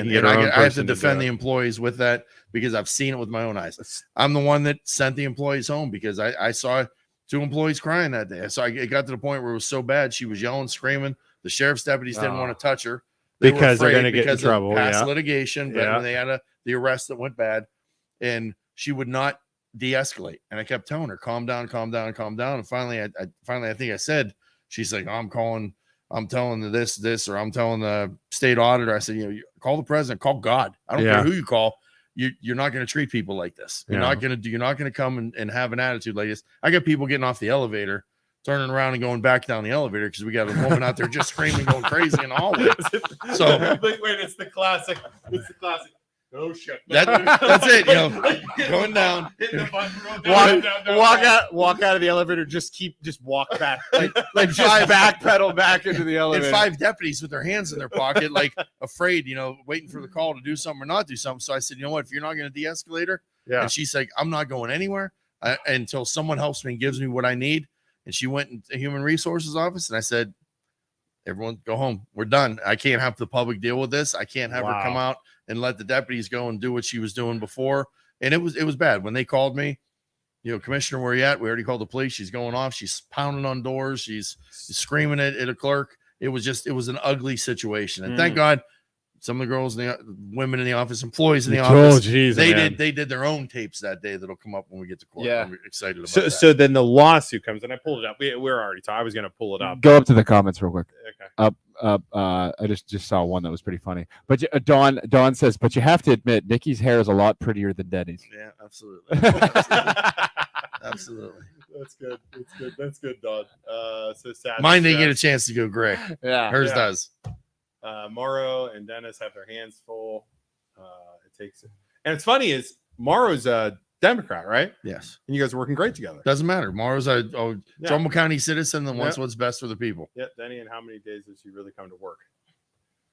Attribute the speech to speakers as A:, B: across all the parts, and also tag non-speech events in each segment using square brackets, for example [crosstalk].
A: And,
B: You're
A: and I,
B: the wrong
A: get- I have to
B: person to do
A: defend
B: it.
A: the employees with that because I've seen it with my own eyes. I'm the one that sent the employees home because I, I saw two employees crying that day. So I, it got to the point where it was so bad. She was yelling, screaming. The sheriff's deputies didn't
B: Oh.
A: want to touch her were
B: Because they're
A: afraid
B: gonna get in
A: because of
B: trouble,
A: Past
B: yeah.
A: litigation, but
B: Yeah.
A: when they had a, the arrest that went bad, and she would not de-escalate. And I kept telling her, "Calm down, calm down, calm down." And finally, I, I finally I think I said, "She's like, I'm calling, I'm telling the this, this, or I'm telling the state auditor." I said, "You know, you- call the president, call God. I don't
B: Yeah.
A: care who you call." You, you're not going to treat people like this. You're
B: Yeah.
A: not going to do. You're not going to come and, and have an attitude like this. I got people getting off the elevator, turning around and going back down the elevator because we got a woman out there just screaming, going crazy in the hallway. [laughs] So-
C: [laughs] Like, wait, it's the classic. It's the classic. Oh shit!
A: That- that's it, you know, going down.
C: [laughs] Hit the button, go down,
B: Walk-
C: down, down,
B: walk
C: down.
B: out, walk out of the elevator. Just keep, just walk [laughs] back, like,
A: like
B: just [laughs] backpedal back into the
A: and
B: elevator.
A: five deputies with their hands in their pocket,
B: [laughs]
A: like afraid, you know, waiting for the call to do something or not do something. So I said, you know what, if you're not going to de-escalate her,
B: yeah,
A: and she's like, I'm not going anywhere uh, until someone helps me and gives me what I need. And she went into human resources office, and I said, everyone go home. We're done. I can't have the public deal with this. I can't have her come out and let the deputies go and do what she was doing before. And it was it was bad when they called me. You know, commissioner, where you at? We already called the police. She's going off. She's pounding on doors. She's screaming at, at a clerk. It was just, it was an ugly situation. And thank God, some of the girls, in the women in the office, employees in the office,
B: oh, geez,
A: they
B: man.
A: did they did their own tapes that day that'll come up when we get to court.
B: Yeah.
A: I'm excited about
B: So,
A: that.
B: so then the lawsuit comes, and I pulled it up. We, we're already. Talking. I was gonna pull it up.
D: Go up to the comments real quick.
B: Okay.
D: Up, uh, I just just saw one that was pretty funny. But you- uh, Don Don says, but you have to admit, Nikki's hair is a lot prettier
B: [laughs]
D: than Denny's.
A: yeah, absolutely. Absolutely.
C: That's good. That's good. That's good, Don. Uh, so sad.
A: Mine didn't get a
C: Stress.
A: chance to go gray.
D: yeah.
A: Hers
C: Yeah.
A: does.
C: uh, Morrow and Dennis have their hands full. Uh, it takes it. And it's funny is Morrow's a Democrat, right?
A: Yes.
C: And you guys are working great together.
A: Doesn't matter. Mara's a, a
C: Yeah.
A: Trumbull County citizen that wants
C: Yeah.
A: what's best for the people.
C: Yeah, Denny, and how many days does she really come to work?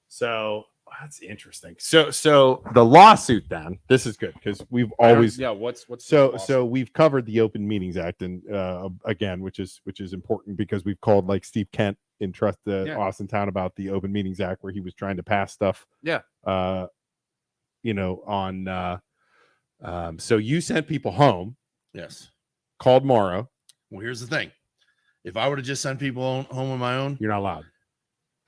C: So that's interesting. So, so the lawsuit then, this is good because we've always
B: Yeah. What's what's
C: so so we've covered the open meetings act and uh again which is which is important because we've called like steve kent in trust the
B: Yeah.
C: austin town about the open meetings act where he was trying to pass stuff
B: Yeah.
C: uh you know on uh um so you sent people home
A: Yes.
C: called morrow
A: Well, here's the thing. If I would have just sent people on, home on my own,
C: you're not allowed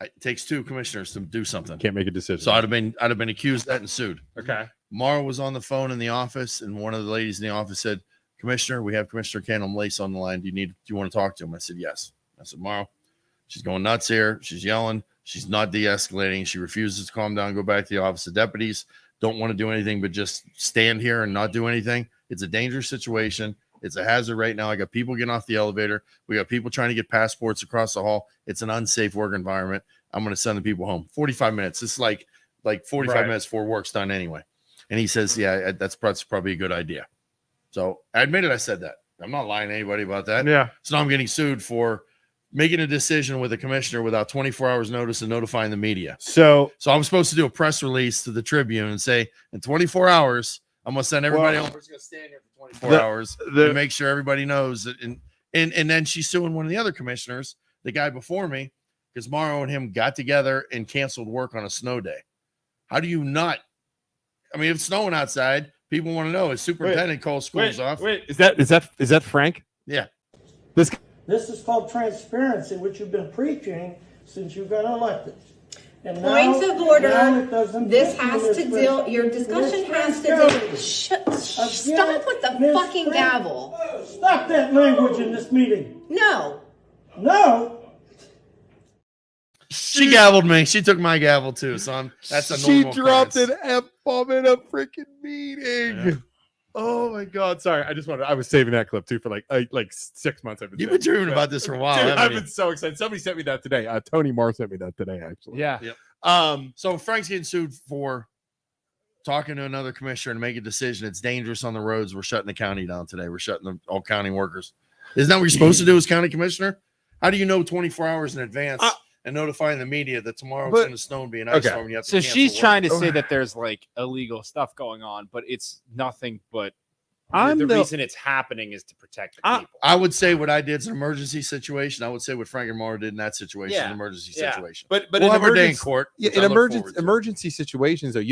A: I- it takes two commissioners to do something.
C: can't make a decision
A: So I'd have been I'd have been accused of that and sued.
B: okay.
A: Mara was on the phone in the office, and one of the ladies in the office said, Commissioner, we have Commissioner Canham Lace on the line. Do you need do you want to talk to him? I said, Yes. I said, Mara, she's going nuts here. She's yelling. She's not de-escalating. She refuses to calm down, go back to the office of deputies. Don't want to do anything but just stand here and not do anything. It's a dangerous situation. It's a hazard right now. I got people getting off the elevator. We got people trying to get passports across the hall. It's an unsafe work environment. I'm going to send the people home. 45 minutes. It's like like 45
B: Right.
A: minutes before work's done anyway. And he says, "Yeah, I- that's prob- that's probably a good idea." So I admitted I said that. I'm not lying to anybody about that.
B: Yeah.
A: So now I'm getting sued for making a decision with a commissioner without 24 hours notice and notifying the media.
B: So
A: So I'm supposed to do a press release to the Tribune and say, in 24 hours, I'm gonna send everybody
B: Well,
A: home. We're just gonna stand here for 24
B: the-
A: hours to
B: the
A: make sure everybody knows that. And and and then she's suing one of the other commissioners, the guy before me, because Morrow and him got together and canceled work on a snow day. How do you not? I mean, if it's snowing outside, people want to know. Is superintendent calls schools off?
C: wait is that is that is that frank
E: This is called transparency, which you've been preaching since you got elected. And now-
F: Points of order.
E: now it doesn't
F: This
E: fit in
F: has to
E: this
F: deal,
E: pres-
F: your
E: in this
F: discussion has to
E: transparency.
F: deal, shh, shh, stop with the
E: Miss
F: fucking
E: Frank-
F: gavel.
E: Stop that language in this meeting.
F: No,
E: No,
A: She gaveled me. She took my gavel too. So I'm that's a
B: she
A: normal
B: dropped
A: occurrence.
B: an f bomb in a freaking meeting.
A: Yeah.
B: Oh my god! Sorry, I just wanted. I was saving that clip too for like I, like six months. I've been
A: You've been
B: saving it.
A: dreaming about this for a while.
B: Dude,
A: haven't
B: I've
A: you?
B: been so excited. Somebody sent me that today. Uh, Tony Marr sent me that today, actually.
D: Yeah.
B: Um.
A: So Frank's getting sued for talking to another commissioner and make a decision. It's dangerous on the roads. We're shutting the county down today. We're shutting the, all county workers. Isn't that what you're supposed to do as county commissioner? How do you know 24 hours in advance
B: Uh,
A: and notifying the media that tomorrow
B: but-
A: it's going to snow and be an ice
B: okay.
A: storm? And you have to
D: So
A: cancel
D: she's
A: work?
D: trying to say that
B: [laughs]
D: there's like illegal stuff going on, but it's nothing but
B: I'm
D: the,
B: the-
D: reason it's happening is to protect the
B: I-
D: people.
A: I would say what I did is an emergency situation. I would say what Frank and Mara did in that situation,
D: Yeah.
A: an emergency
D: Yeah.
A: situation.
B: But but
A: we'll
B: in
A: have our day in
B: emergency,
A: court.
B: yeah,
A: which
B: in
A: I look
B: emergency
A: forward to.
B: emergency situations though, you